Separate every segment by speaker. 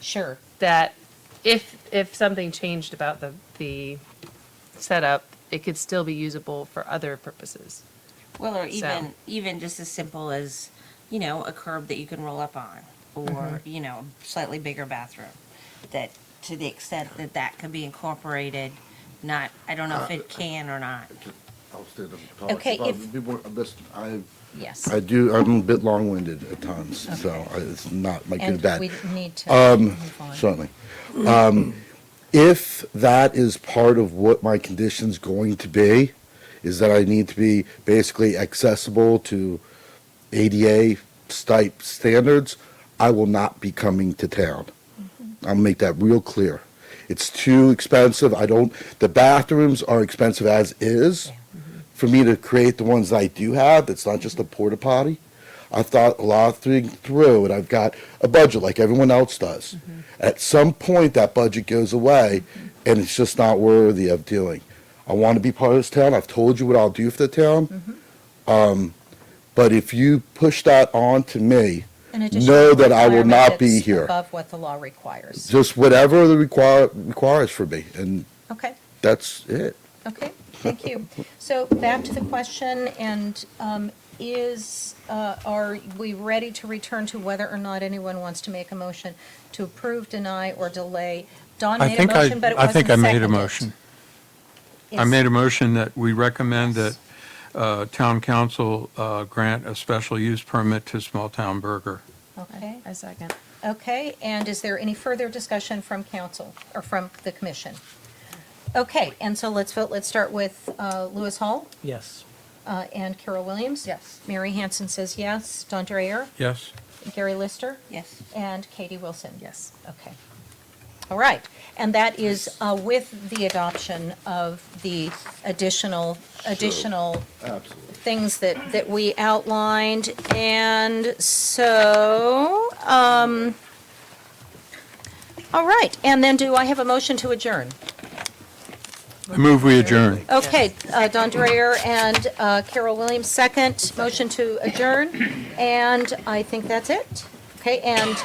Speaker 1: Sure.
Speaker 2: that if, if something changed about the, the setup, it could still be usable for other purposes.
Speaker 1: Well, or
Speaker 2: So-
Speaker 1: even, even just as simple as, you know, a curb that you can roll up on, or, you know, a slightly bigger bathroom. That, to the extent that that could be incorporated, not, I don't know if it can or not.
Speaker 3: I'll stay on topic.
Speaker 1: Okay,
Speaker 3: But
Speaker 1: if-
Speaker 3: people- this- I,
Speaker 4: Yes.
Speaker 3: I do, I'm a bit long-winded at times, so I- it's not my good
Speaker 4: And
Speaker 3: bad.
Speaker 4: we need to move on.
Speaker 3: Certainly. Um, If that is part of what my condition's going to be, is that I need to be basically accessible to ADA type standards, I will not be coming to town.
Speaker 4: Mm-hmm.
Speaker 3: I'll make that real clear. It's too expensive. I don't, the bathrooms are expensive as is.
Speaker 4: Mm-hmm.
Speaker 3: For me to create the ones I do have, it's not just a porta potty. I've thought a lot of things through and I've got a budget like everyone else does. At some point, that budget goes away and it's just not worthy of doing. I want to be part of this town. I've told you what I'll do for the town. Um, but if you push that on to me,
Speaker 4: An additional
Speaker 3: know that I will
Speaker 4: requirement
Speaker 3: not be
Speaker 4: that's
Speaker 3: here.
Speaker 4: Above what the law requires.
Speaker 3: just whatever the require, requires for me, and
Speaker 4: Okay,
Speaker 3: that's it.
Speaker 4: okay, thank you. So back to the question, and um, is, uh, are we ready to return to whether or not anyone wants to make a motion to approve, deny, or delay? Don
Speaker 5: I
Speaker 4: made a
Speaker 5: think I,
Speaker 4: motion, but it
Speaker 5: I
Speaker 4: wasn't
Speaker 5: think I
Speaker 4: seconded.
Speaker 5: made a motion. I made a motion that we recommend that
Speaker 4: Yes.
Speaker 5: uh, town council uh, grant a special use permit to Small Town Burger.
Speaker 4: Okay,
Speaker 2: I second.
Speaker 4: okay, and is there any further discussion from council, or from the commission? Okay, and so let's vote, let's start with uh, Lewis Hall.
Speaker 6: Yes.
Speaker 4: Uh, And Carol Williams?
Speaker 2: Yes.
Speaker 4: Mary Hanson says yes. Don Dreyer?
Speaker 5: Yes?
Speaker 4: Gary Lister?
Speaker 1: Yes.
Speaker 4: And Katie Wilson?
Speaker 2: Yes.
Speaker 4: Okay. All right. And that is uh, with the adoption of the additional, additional
Speaker 3: Absolutely.
Speaker 4: things that, that we outlined. And so, um, all right. And then do I have a motion to adjourn?
Speaker 5: I move we adjourn.
Speaker 4: Okay, uh, Don Dreyer and uh, Carol Williams, second. Motion to adjourn, and I think that's it. Okay, and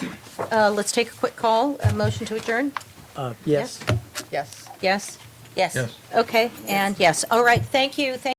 Speaker 4: uh, let's take a quick call. A motion to adjourn?
Speaker 6: Uh,
Speaker 4: Yes.
Speaker 6: yes.
Speaker 2: Yes.
Speaker 4: Yes?
Speaker 1: Yes.
Speaker 5: Yes.
Speaker 4: Okay, and yes. All right, thank you, thank